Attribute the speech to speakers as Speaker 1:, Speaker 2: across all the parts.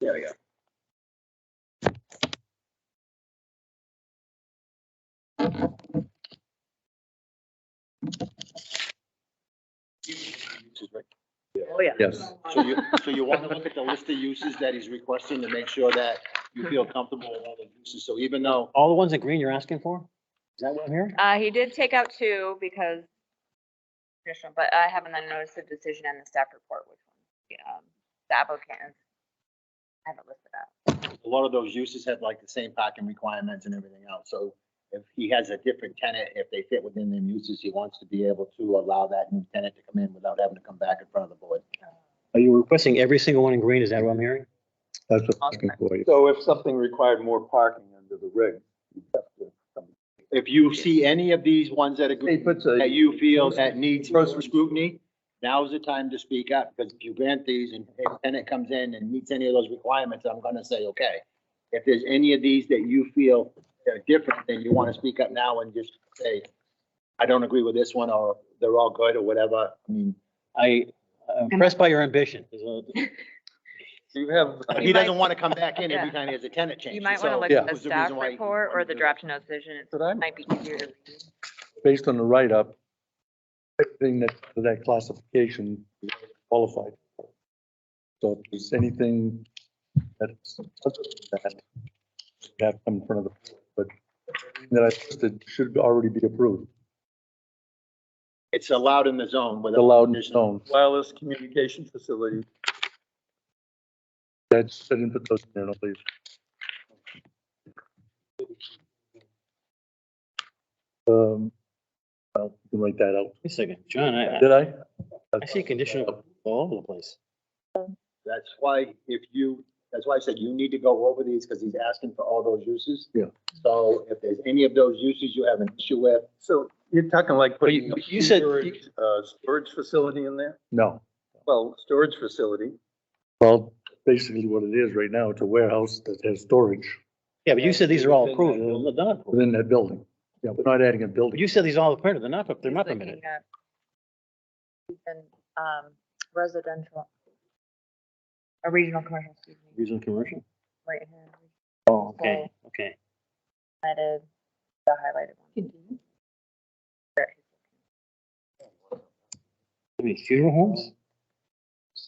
Speaker 1: There we go.
Speaker 2: Oh, yeah.
Speaker 3: Yes.
Speaker 1: So you, so you want to look at the list of uses that he's requesting to make sure that you feel comfortable with all the uses. So even though,
Speaker 4: All the ones in green you're asking for? Is that what I'm hearing?
Speaker 2: Uh, he did take out two because additional, but I haven't then noticed the decision and the staff report, which one, yeah, um, the applicant. is- I haven't listed that.
Speaker 1: a lot of those uses have like the same parking requirements and everything else. So if he has a different tenant, if they fit within them uses, he wants to be able to allow that new tenant to come in without having to come back in front of the board.
Speaker 4: Are you requesting every single one in green? Is that what I'm hearing?
Speaker 3: That's what I'm looking for.
Speaker 5: So if something required more parking under the rig,
Speaker 1: If you see any of these ones that agree,
Speaker 5: He puts a-
Speaker 1: that you feel that needs closer scrutiny, now's the time to speak up, because if you grant these and if a tenant comes in and meets any of those requirements, I'm gonna say, okay. If there's any of these that you feel are different, then you wanna speak up now and just say, I don't agree with this one, or they're all good, or whatever, I mean.
Speaker 4: I, I'm impressed by your ambition. Is uh, what-
Speaker 5: you have,
Speaker 1: He doesn't wanna come back in every
Speaker 2: Yeah.
Speaker 1: time he has a tenant change.
Speaker 2: You might want to
Speaker 1: so
Speaker 2: look
Speaker 5: yeah.
Speaker 1: that
Speaker 2: at the
Speaker 1: was reason
Speaker 2: staff
Speaker 1: why he
Speaker 2: report or
Speaker 1: wanted
Speaker 2: the
Speaker 1: to-
Speaker 2: draft notes decision. It
Speaker 5: but I'm,
Speaker 2: might be easier to read.
Speaker 5: based on the write-up, everything that, that classification qualified. for. So if there's anything that's, other than that, you have to come in front of the, but everything that I listed should already be approved,
Speaker 1: It's allowed in the zone with.
Speaker 5: allowed in stone.
Speaker 6: wireless communication facility.
Speaker 5: That's, I didn't put those in there, I don't believe. Um, well, you can write that out.
Speaker 4: Wait a second, John, I, I-
Speaker 5: Did I?
Speaker 4: I see conditional all over the place.
Speaker 1: That's why if you, that's why I said you need to go over these because he's asking for all those uses.
Speaker 5: Yeah.
Speaker 1: So if there's any of those uses you have an issue with,
Speaker 6: So you're talking like
Speaker 4: But you-
Speaker 6: putting. a
Speaker 4: you said-
Speaker 6: storage, Uh, storage facility in there?
Speaker 5: No.
Speaker 6: Well, storage facility.
Speaker 5: Well, basically what it is right now, it's a warehouse that has storage
Speaker 4: Yeah, but you said these are all
Speaker 6: Within that
Speaker 4: approved. They're not approved.
Speaker 5: within that building. Yeah, we're not adding a
Speaker 4: But
Speaker 5: building.
Speaker 4: You said these all are permitted. They're not, they're not
Speaker 2: He's
Speaker 4: permitted.
Speaker 2: looking at even, um, residential. A regional commercial, excuse me,
Speaker 4: Regional commercial?
Speaker 2: right here,
Speaker 4: Oh, okay, okay.
Speaker 2: highlighted, the highlighted one.
Speaker 4: I mean, funeral homes?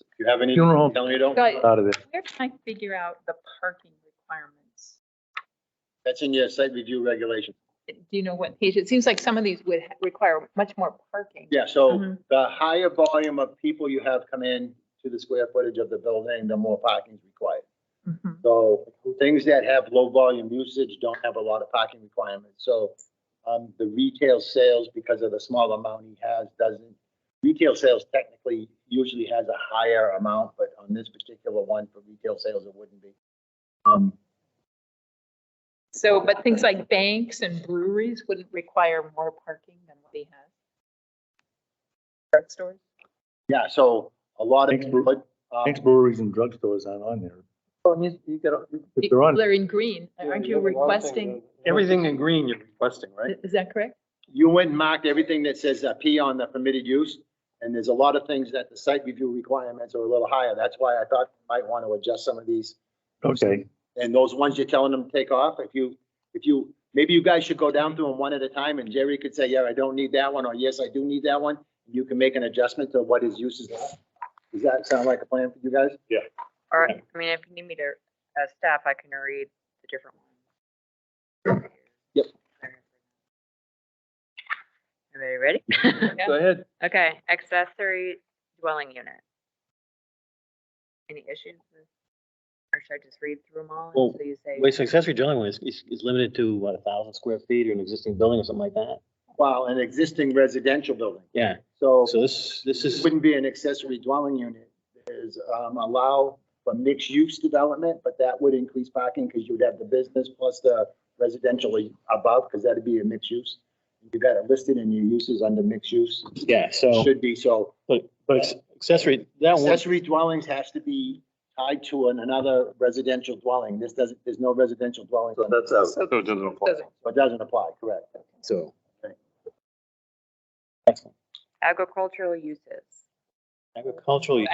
Speaker 1: if you have any,
Speaker 5: Funeral home.
Speaker 1: tell me you don't.
Speaker 7: Guys,
Speaker 5: Out of it.
Speaker 7: we're trying to figure out the parking requirements.
Speaker 1: That's in your site review regulation.
Speaker 7: Do you know what page? It seems like some of these would ha- require much more parking.
Speaker 1: Yeah, so
Speaker 7: Mhm.
Speaker 1: the higher volume of people you have come in to the square footage of the building, the more parking is required.
Speaker 7: Mhm.
Speaker 1: So things that have low volume usage don't have a lot of parking requirements. So um, the retail sales, because of the small amount he has, doesn't, retail sales technically usually has a higher amount, but on this particular one for retail sales, it wouldn't be. Um,
Speaker 7: So, but things like banks and breweries wouldn't require more parking than what they have. Drug stores?
Speaker 1: Yeah, so a lot of.
Speaker 5: Thanks, Bruce.
Speaker 1: but, um,
Speaker 5: Thanks breweries and drugstores aren't on there.
Speaker 6: Oh, you, you got,
Speaker 5: If they're on,
Speaker 7: They're in green. Aren't you requesting,
Speaker 6: everything in green you're requesting, right?
Speaker 7: is that correct?
Speaker 1: You went and marked everything that says uh, P on the permitted use, and there's a lot of things that the site review requirements are a little higher. That's why I thought you might want to adjust some of these.
Speaker 5: okay,
Speaker 1: And those ones you're telling them to take off, if you, if you, maybe you guys should go down through them one at a time, and Jerry could say, yeah, I don't need that one, or yes, I do need that one. You can make an adjustment to what his uses are. Does that sound like a plan for you guys?
Speaker 2: Or, I mean, if you need me to, as staff, I can read the different ones.
Speaker 1: Yep.
Speaker 2: Everybody ready?
Speaker 6: Go ahead.
Speaker 2: Okay, accessory dwelling unit. Any issues with, or should I just read through them all
Speaker 4: Well,
Speaker 2: until you say?
Speaker 4: Wait, so accessory dwelling one is, is is limited to what, a thousand square feet or an existing building or something like that?
Speaker 1: Well, an existing residential building,
Speaker 4: Yeah,
Speaker 1: so.
Speaker 4: so this, this
Speaker 1: This
Speaker 4: is,
Speaker 1: wouldn't be an accessory dwelling unit, is um, allow for mixed-use development, but that would increase parking because you would have the business plus the residential above, because that'd be a mixed use. You got it listed in your uses under mixed use,
Speaker 4: yeah, so,
Speaker 1: should be, so
Speaker 4: but, but accessory, that one.
Speaker 1: accessory dwellings has to be tied to an- another residential dwelling. This doesn't, there's no residential dwelling, so
Speaker 6: that's out.
Speaker 7: So it doesn't
Speaker 1: it doesn't apply, correct?
Speaker 4: So.
Speaker 1: Okay.
Speaker 4: Excellent.
Speaker 2: Agricultural uses.
Speaker 4: Agricultural